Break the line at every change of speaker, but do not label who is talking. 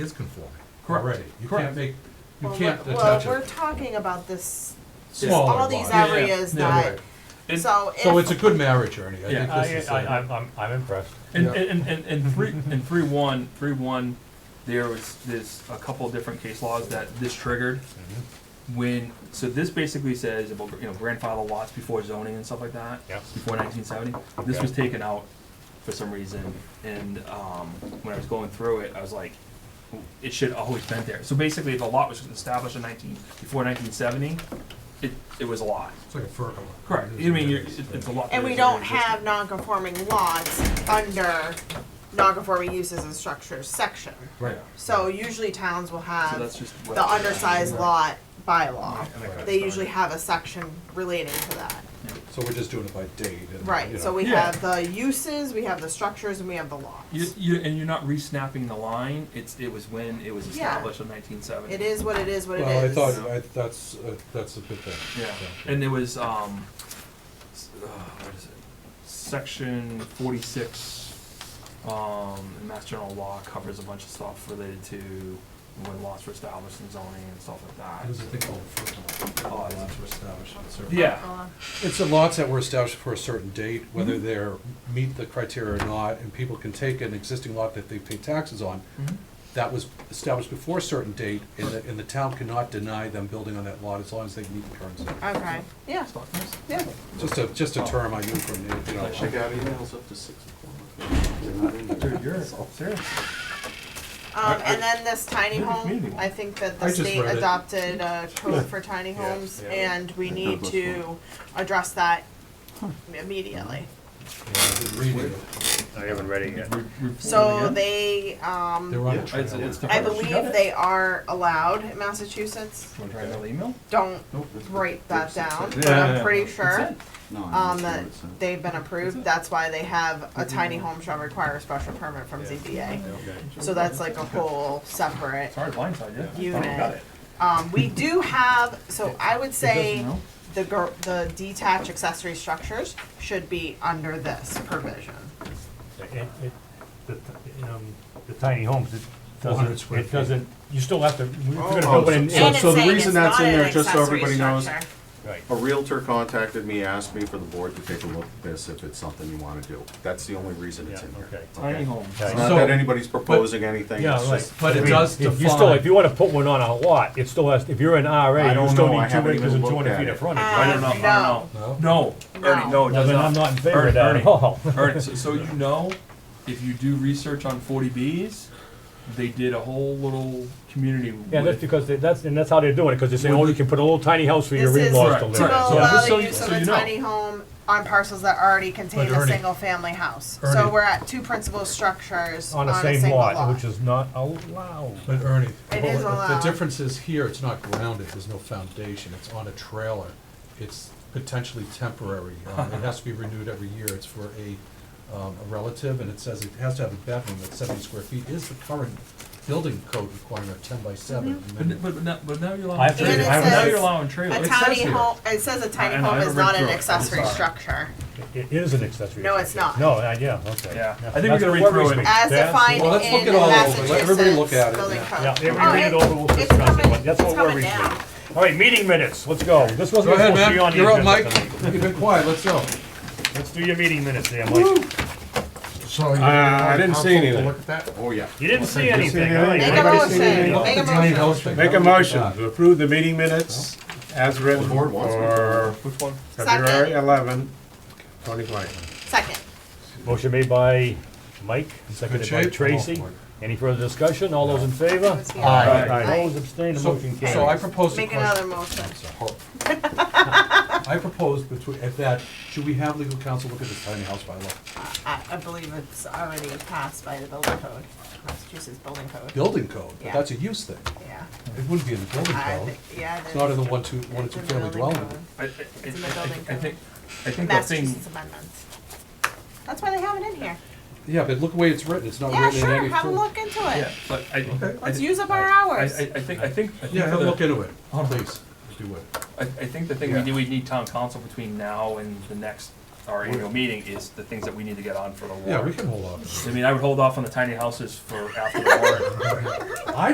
is conforming
Correct.
already. You
Correct.
can't make, you
Well,
can't
we're-
attach
Well, we're
a
talking about this,
smaller
all these
lot.
Yeah, yeah,
areas
yeah,
that,
And-
so
So it's a
if,
good marriage, Ernie.
Yeah,
I
I,
think this is.
I,
uh,
I'm, I'm, I'm impressed.
And-
And,
Yeah.
and, and, three, and three one, three one, there was, there's a couple of different case laws that this triggered when, so this basically says about, you know, grandfather lots before zoning and stuff like that.
Yeah.
Before nineteen seventy, this was taken out for some reason, and, um, when I was going through it, I was like, it should always been there. So basically, if a lot was established in nineteen, before nineteen seventy, it, it was a lot.
It's like a fur.
Correct, I mean, you're, it- it's a lot.
and we
that's
don't
already existing.
have non-conforming lots under non-conforming uses and structures section.
Right.
So usually towns will
So
have
that's just. what-
um, the undersized lot bylaw.
And that kind of
They
stuff.
usually have a section relating to that.
So we're just doing it by date and, you
Right, so
know.
we
Yeah.
have the uses, we have the structures, and we have the
You,
lots.
you, and you're not re-snapping the line, it's, it was when it was
Yeah.
established in nineteen seventy.
It is what it is, what it
Well, I
is.
thought, I, that's, uh, that's a good thing.
Yeah, and it was, um, s- uh, what is it, section forty-six, um, in Mass General Law covers a bunch of stuff related to when lots were established and zoning and stuff like that.
There's a thing called fur.
Oh, it's-
Lots were established at a certain-
Yeah.
Uh,
It's the lots that were established for a certain date, whether
Mm-hmm.
they're, meet the criteria or not, and people can take an existing lot that they pay taxes on,
Mhm.
that was established before a certain date, and the, and the town cannot deny them building on that lot as long as they meet the terms.
Okay, yeah,
Stuff like this.
yeah.
Just a, just a term I knew from, the- you
Like check
know,
out emails up to six o'clock.
Dude, you're, seriously.
Um, and then this tiny
Maybe community
home,
one.
I think
I
that the
just
state
read it.
adopted a code for tiny
Yeah.
homes,
Yeah.
and we
I
need
thought it was
to address that immediately.
uh, reading.
I haven't read it yet.
So they, um,
They're on
Yeah,
a trail.
It's, it's.
I
deferred. She got
believe
it.
they are allowed in Massachusetts.
You wanna try another email?
Don't
Nope.
write that down, but
Yeah, yeah,
I'm
yeah.
pretty
It's
sure,
in.
No, I'm
um,
not
that
sure what's that.
they've been approved. That's why they have a tiny home shall require a special permit from ZBA. So that's like a whole separate
Oh,
Sorry, blindside you.
Unit.
Oh, Got it.
Um, we do have, so I would say
It doesn't
the gar- the detached accessory structures should be under this provision.
It, it, the, t- um, the tiny homes, it
400
doesn't,
square
it
feet.
doesn't, you still have to, we're gonna
Oh,
build it in.
So-
And it's
so the
saying
reason
it's
that's
not
in
an
there, just so
accessory
everybody knows-
structure.
Right.
A Realtor contacted me, asked me for the board to take a look at this if it's something you wanna do. That's the only reason it's
Yeah,
in here.
okay.
Tiny home.
It's
Okay.
not
So-
that anybody's proposing anything,
Yeah,
it's
right.
just,
But it
I mean,
does
if you still, if
define,
you wanna put one on a lot, it still has, if you're an RA,
I
you
don't
still
know, I
need two
haven't
acres
even
and two
looked
hundred
at
feet
it.
of frontage,
Uh,
right?
I don't know, I don't know.
no?
No, Ernie, no, it
Well,
does
then I'm
not.
not in favor
Ernie,
of that
Ernie.
at all.
Ernie, so, so you know, if you do research on forty Bs, they did a whole little community
Yeah, that's
with.
because, they- that's, and that's how they're doing it, cause they say, oh, you can put a little tiny house for your
This is
in-laws to
Right,
live
to
in.
right.
So-
Yeah,
allow
just so
the
you-
use of
so
a
you know.
tiny home on parcels that already contain
But
a
Ernie-
single-family house. So
Ernie-
we're at two principal structures
On
on
the
a
same
single
lot,
lot.
which is not allowed.
But Ernie,
It
well,
is
the
allowed.
difference is here, it's not grounded, there's no foundation, it's on a trailer. It's potentially temporary, um, it has to be renewed every year, it's for a, um, a relative, and it says it has to have a bedroom that's seventy square feet, is the current building code requirement of ten by seven.
But,
Mm-hmm.
n- but, but now, but now you're
I
allowing,
have to
trailers.
read it.
now
And it says-
you're allowing trailers.
A
says
tiny
here.
home, it says a
I-
tiny
I know, I
home is
haven't read
not an
through it. I'm
accessory
sorry.
structure,
It is an accessory.
No, it's
structure.
not.
No, uh, yeah, okay.
Yeah. I
That's-
think we
that's
gotta read
what
through it.
speak.
as
That's-
defined in
Well, let's look it
the
all over. Let everybody look at
Massachusetts
it,
building
yeah.
Yeah,
code.
if we
Oh,
read it over, we'll
it's
discuss it,
coming-
but that's
it's
what we're
coming
reading.
down.
All right, meeting minutes, let's go. This
Go
wasn't
ahead,
supposed to be on
man,
the
you're up, Mike,
agenda tonight.
you've been quiet, let's go.
Let's do your meeting minutes there, Mike.
So you.
I didn't see
Council to
anything.
Look at that.
oh yeah.
You didn't see
you.
anything,
See
all right.
Make a
Everybody see
motion,
anything?
make a
Tiny
motion.
house thing.
Make a
That was-
motion to
Uh,
approve the meeting minutes as written
The board wants me to.
for
Which one?
February
Second.
11, 2020.
Second.
Motion made by Mike, seconded by
shape.
Tracy. Any further discussion? All those in favor?
Aye.
Aye.
Aye.
Opposed, abstained, the
So,
motion carries.
so I proposed a
Make
question.
another motion.
I proposed between, at that, should we have legal counsel look at this tiny house by law?
I, I believe it's already passed by the building code, Massachusetts building code,
Building code, but
Yeah.
that's a use thing.
yeah.
It wouldn't be in the building
I
code.
think, yeah.
It's not in the
there's-
one, two, one or
it's
two
in the
family
building
dwelling.
code.
I, I, I, I
in the building
think, I
code.
think, I think that thing,
Massachusetts amendments. That's why they have it in here.
Yeah, but look the way it's written, it's not
Yeah,
written in
sure,
any.
have a
form.
look into
yeah,
it.
but I, I,
Let's
thi-
use up our
I, I, I
hours.
think, I think, I think
Yeah,
for
have a
the-
look into it,
Hold on.
please, do it.
I, I think the thing we
Yeah.
do, we need town council between now and the next our annual meeting is the things that we need to get on for the
Yeah, we
warrant.
can hold off.
I mean, I would hold off on the tiny houses for after the warrant.